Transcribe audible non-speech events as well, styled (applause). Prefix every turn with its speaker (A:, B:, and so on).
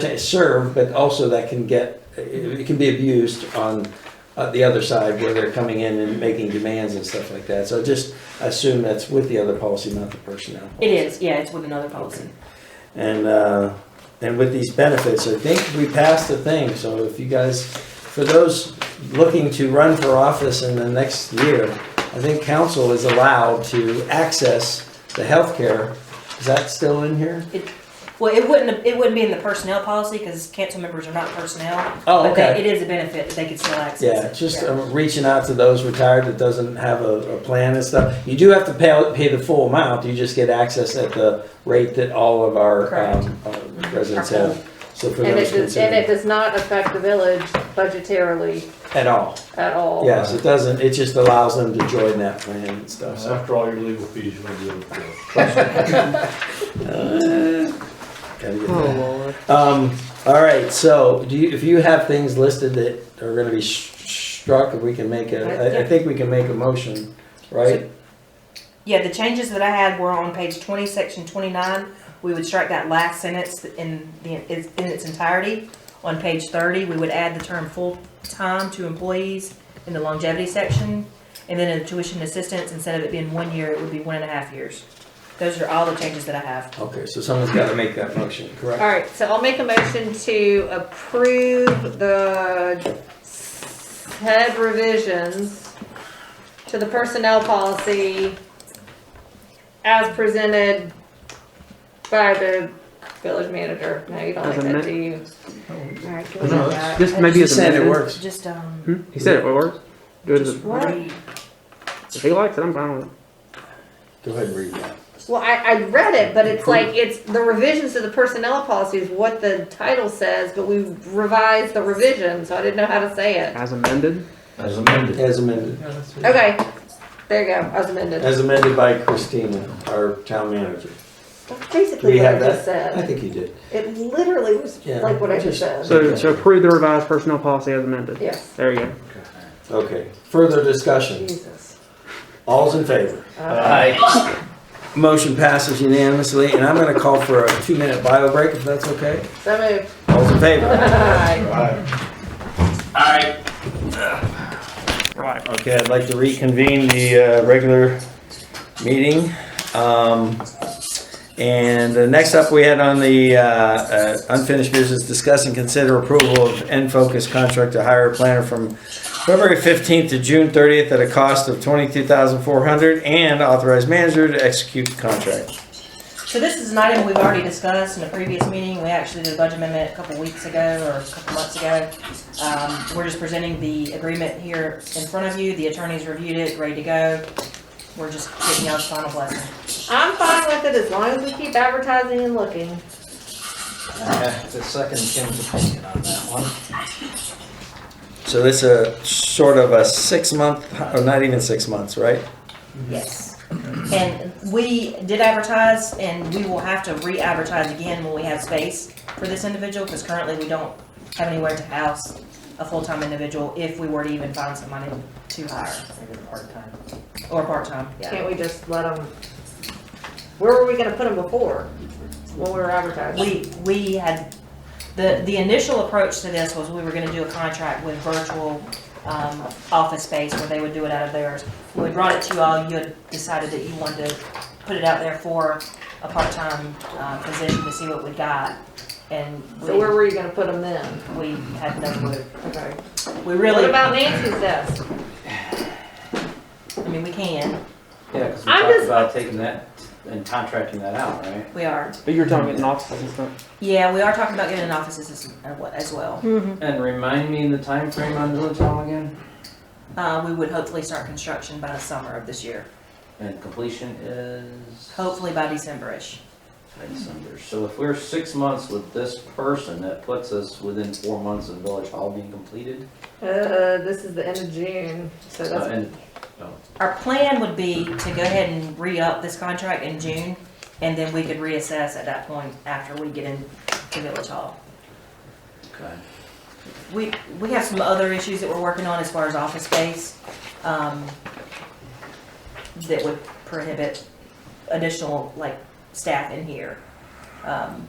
A: to serve, but also that can get, it it can be abused on uh, the other side where they're coming in and making demands and stuff like that. So just assume that's with the other policy, not the personnel.
B: It is, yeah, it's with another policy.
A: And, uh, and with these benefits, I think we passed the thing, so if you guys, for those looking to run for office in the next year, I think council is allowed to access the healthcare. Is that still in here?
B: It, well, it wouldn't, it wouldn't be in the personnel policy because council members are not personnel.
A: Oh,
B: but they-
A: okay.
B: It is a benefit that they could still access it.
A: Yeah, just
B: Yeah.
A: um, reaching out to those retired that doesn't have a, a plan and stuff. You do have to pay, pay the full amount, you just get access at the rate that all of our,
B: Correct.
A: um, uh, residents
B: Our full.
A: have. So for
C: And
A: those
C: it does, and
A: considered,
C: it does not affect the village budgetarily
A: at all.
C: at all.
A: Yes, it doesn't, it just allows them to join that plan and stuff, so.
D: After all your legal fees, you're gonna be able to.
A: Gotta get that. Um, all right, so do you, if you have things listed that are gonna be sh- sh- struck, if we can make a, I, I think we can make a motion, right?
B: Yeah, the changes that I had were on page twenty, section twenty-nine. We would strike that last sentence in the, is- in its entirety. On page thirty, we would add the term full-time to employees in the longevity section. And then in tuition assistance, instead of it being one year, it would be one and a half years. Those are all the changes that I have.
A: Okay, so someone's gotta make that motion, correct?
C: All right, so I'll make a motion to approve the head revisions to the personnel policy as presented by the village manager. No, you don't like that, do you? All right, give me
E: No,
C: that.
E: This maybe
A: She
E: is
A: said it
E: amended.
A: works.
B: Just, um,
E: Hmm? He said it works. Do it
B: just
E: as-
B: read.
E: if he likes it, I'm fine with it.
A: Go ahead and read that.
C: Well, I, I read it, but it's like, it's, the revisions to the personnel policy is what the title says, but we revised the revision, so I didn't know how to say it.
E: As amended.
D: As amended.
A: As amended,
C: Okay, there you go, as amended.
A: as amended by Christina, our town manager.
C: That's
A: Do we
C: basically what I
A: have
C: just
A: that? I
C: said.
A: think you did.
C: It literally was
A: Yeah,
C: like what I
A: just-
C: just said.
E: So, so approve the revised personnel policy as amended.
C: Yes,
E: There you go.
A: Okay, further discussion,
C: Jesus.
A: all's in favor? Motion passes unanimously, and I'm gonna call for a two-minute bio break, if that's okay?
C: So moved. (laughs)
A: All's in favor?
C: Aye.
E: Right.
A: Okay, I'd like to reconvene the uh, regular meeting. Um, And uh, next up, we had on the uh, uh, unfinished business, discuss and consider approval of N-Focus contract to hire a planner from February 15th to June 30th at a cost of 22400 and authorize manager to execute the contract.
B: So this is an item we've already discussed in a previous meeting. We actually did a budget amendment a couple weeks ago or a couple months ago. Um, we're just presenting the agreement here in front of you. The attorneys reviewed it, ready to go. We're just getting y'all's final blessing.
C: I'm fine with it as long as we keep advertising and looking.
F: The second Kim's opinion on that one.
A: So this is sort of a six-month, or not even six months, right?
B: Yes. And we did advertise and we will have to re-advertise again when we have space for this individual because currently we don't have anywhere to house a full-time individual if we were to even find somebody to hire
F: Maybe part-time.
B: or part-time, yeah.
C: Can't we just let them, where were we gonna put them before? When we were advertising?
B: We, we had, the, the initial approach to this was we were gonna do a contract with virtual, um, office space where they would do it out of theirs. When we brought it to you all, you had decided that you wanted to put it out there for a part-time, um, position to see what we got. And
C: So where
B: we,
C: were you gonna put them then?
B: we had no clue.
C: Okay.
B: We
C: What
B: really, I
C: about Nancy's desk?
B: mean, we can,
F: Yeah, because we
C: I'm
F: talked
C: just-
F: about taking that and contracting that out, right?
B: we are.
E: But you were talking about an office and stuff.
B: Yeah, we are talking about getting an office assistant uh, what- as well.
C: Hmm.
F: And remind me the time frame on Village Hall again?
B: Uh, we would hopefully start construction by the summer of this year,
F: And completion is
B: hopefully by December-ish.
F: December. So if we're six months with this person, that puts us within four months of Village Hall being completed.
C: Uh, this is the end of June, so
F: Uh,
C: that's,
F: And
B: Our plan would be to go ahead and re-up this contract in June, and then we could reassess at that point after we get into Village Hall.
F: Okay.
B: We, we have some other issues that we're working on as far as office space, um, that would prohibit additional, like, staff in here. Um,